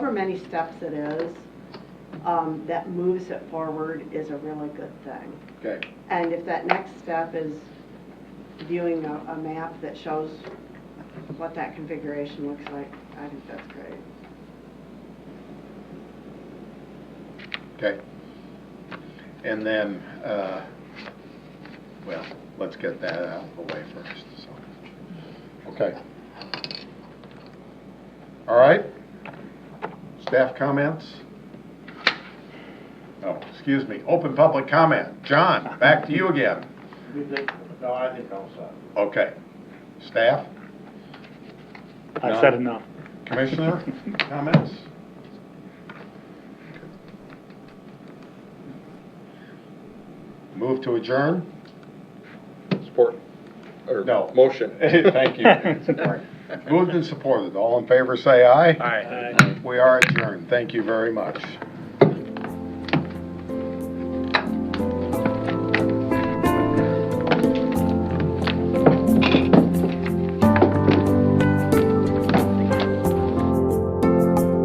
however many steps it is, um, that moves it forward is a really good thing. Okay, And if that next step is viewing a, a map that shows what that configuration looks like, I think that's great. okay. And then, uh, well, let's get that out of the way first, so. Okay. All right. Staff comments? Oh, excuse me, open public comment. John, back to you again. You think, no, I think I'm sorry. Okay. Staff, I've said enough. commissioner, comments? Move to adjourn? Support, or No. motion. Thank you. Moved and supported. All in favor, say aye. Aye. We are adjourned. Thank you very much.